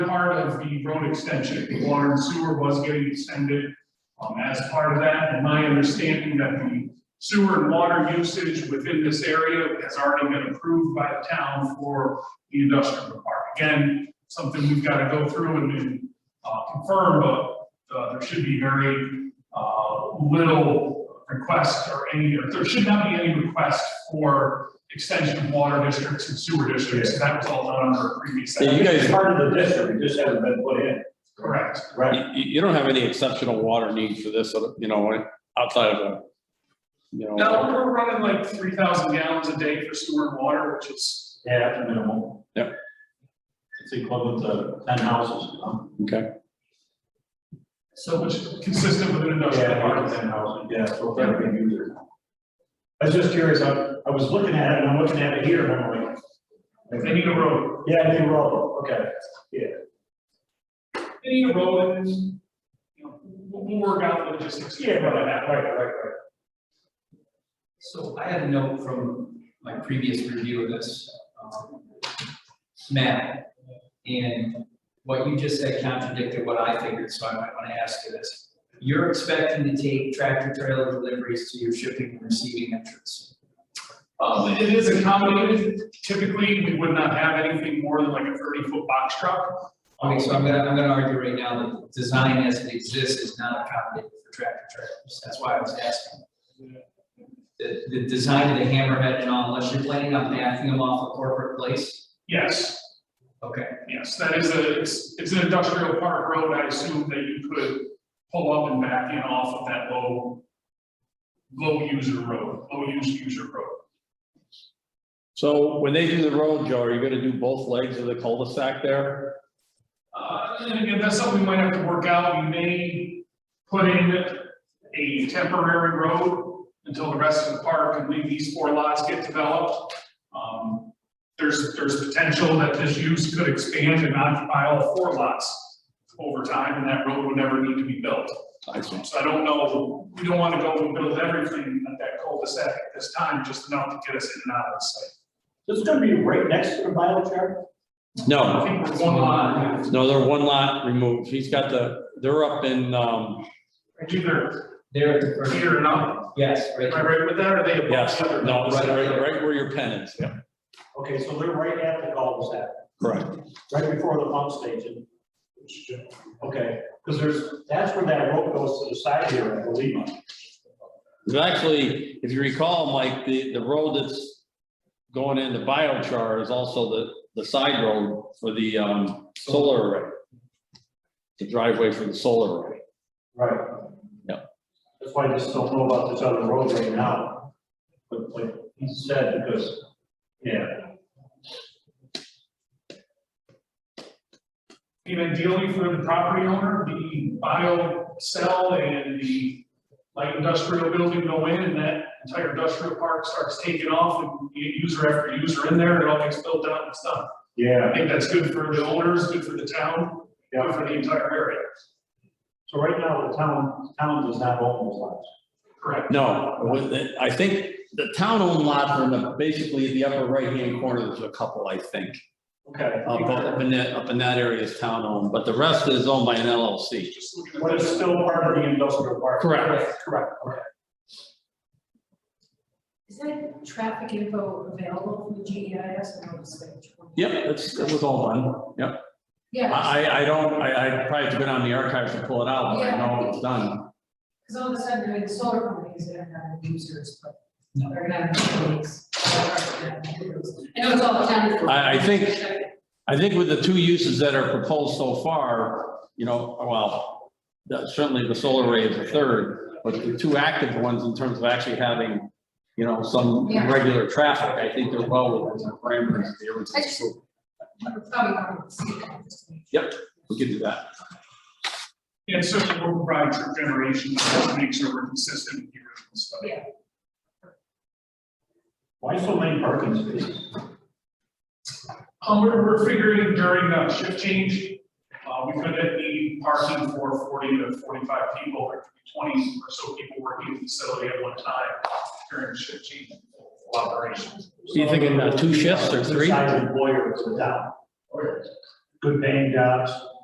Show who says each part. Speaker 1: part of the road extension, the water and sewer was getting extended. Um, as part of that, and my understanding that the sewer and water usage within this area has already been approved by the town for the industrial park. Again, something we've got to go through and, and, uh, confirm, but, uh, there should be very, uh, little request or any, or there should not be any request for extension of water districts and sewer districts. That was all done under a previous.
Speaker 2: Yeah, you guys-
Speaker 3: It's part of the district, it just hasn't been put in,
Speaker 1: Correct.
Speaker 3: right?
Speaker 2: You, you don't have any exceptional water needs for this, you know, outside of a, you know.
Speaker 1: Now, we're running like three thousand gallons a day for sewer and water, which is,
Speaker 3: Yeah, at the minimum.
Speaker 2: Yep.
Speaker 3: It's equivalent to ten houses, you know?
Speaker 2: Okay,
Speaker 1: so much consistent with an industrial
Speaker 3: Yeah,
Speaker 1: park.
Speaker 3: around ten houses, yeah, so if that would be user. I was just curious, I, I was looking at it, and I'm looking at it here, and I'm like.
Speaker 1: They need a road.
Speaker 3: Yeah, I think we're all, okay,
Speaker 1: They need a road and, you know, we'll, we'll work out the logistics.
Speaker 3: yeah, right, right, right, right.
Speaker 4: So I had a note from my previous review of this, um, map, and what you just said contradicted what I figured, so I might want to ask you this. You're expecting to take tractor trailer deliveries to your shipping and receiving entrance.
Speaker 1: Um, it is accommodated, typically, we would not have anything more than like a thirty-foot box truck.
Speaker 4: Okay, so I'm gonna, I'm gonna argue right now that the design as it exists is not accommodated for tractor trailers, that's why I was asking. The, the design of the hammerhead and all, unless you're planning on backing them off a corporate place,
Speaker 1: Yes,
Speaker 4: okay.
Speaker 1: yes, that is a, it's, it's an industrial park road, I assume that you could pull up and back in off of that low, low user road, low use user road.
Speaker 2: so when they do the road, Joe, are you gonna do both legs of the cul-de-sac there?
Speaker 1: Uh, and again, that's something we might have to work out, we may put in a temporary road until the rest of the park and leave these four lots get developed. Um, there's, there's potential that this use could expand and occupy all four lots over time, and that road would never need to be built.
Speaker 2: I see.
Speaker 1: So I don't know, we don't wanna go and build everything at that cul-de-sac at this time, just enough to get us in and out of the site.
Speaker 3: This is gonna be right next to the biochar?
Speaker 2: No,
Speaker 1: I think we're one lot, and
Speaker 2: no, they're one lot removed. He's got the, they're up in, um,
Speaker 1: a half. either
Speaker 4: There at the first.
Speaker 1: here or not,
Speaker 4: Yes, right.
Speaker 1: am I right with that, or are they above
Speaker 2: yes,
Speaker 1: the other?
Speaker 2: no, right, right, right where your pen is, yeah,
Speaker 3: Okay, so they're right at the cul-de-sac,
Speaker 2: correct.
Speaker 3: right before the pump station. Okay, because there's, that's where that road goes to the side here, I believe.
Speaker 2: There's actually, if you recall, Mike, the, the road that's going into biochar is also the, the side road for the, um, solar array. The driveway for the solar array.
Speaker 3: Right.
Speaker 2: Yeah.
Speaker 3: That's why I just don't know about this other road right now. But like he said, because, yeah,
Speaker 1: I mean, ideally for the property owner, the bio cell and the light industrial building go in and that entire industrial park starts taking off and you get user after user in there, and it all gets built out and stuff. I
Speaker 3: yeah,
Speaker 1: think that's good for the owners, good for the town, good
Speaker 3: yeah.
Speaker 1: for the entire area.
Speaker 3: So right now, the town, town does not own those lots.
Speaker 1: Correct.
Speaker 2: No, it was- I think the town owned lot from the, basically the upper right-hand corner, there's a couple, I think.
Speaker 3: Okay.
Speaker 2: Up, up in that, up in that area is town owned, but the rest is owned by an LLC.
Speaker 1: Just looking
Speaker 3: But
Speaker 1: at
Speaker 3: it's
Speaker 1: this.
Speaker 3: still part of the industrial park.
Speaker 2: Correct.
Speaker 3: Correct, okay.
Speaker 5: Is that traffic info available from the GEIS? I don't see it.
Speaker 2: Yep, that's, that was all done.
Speaker 5: Yeah,
Speaker 2: I, I- I don't, I, I probably have to go down to the archives to pull it out, but I know it's done.
Speaker 5: because all of a sudden, I mean, solar companies that are not users, but
Speaker 4: No.
Speaker 5: they're not employees. I know it's all accounted for.
Speaker 2: I- I think- I think with the two uses that are proposed so far, you know, well, that- certainly the solar array is a third, but the two active ones in terms of actually having, you know, some
Speaker 5: Yeah.
Speaker 2: regular traffic, I think they're well within the parameters of the
Speaker 5: I
Speaker 2: ordinance.
Speaker 5: just-
Speaker 2: So
Speaker 5: Probably not to see that.
Speaker 2: We can do that.
Speaker 1: And certainly we'll provide for generation, to make sure we're consistent with the original study.
Speaker 3: Why so many parking spaces?
Speaker 1: Um, we're, we're figuring during uh shift change, uh, we could have the parking for forty to forty-five people, or twenty or so people working in the facility at one time during shift change operations.
Speaker 2: So you're thinking, uh, two shifts or three?
Speaker 3: Side employer to the town. good paying jobs.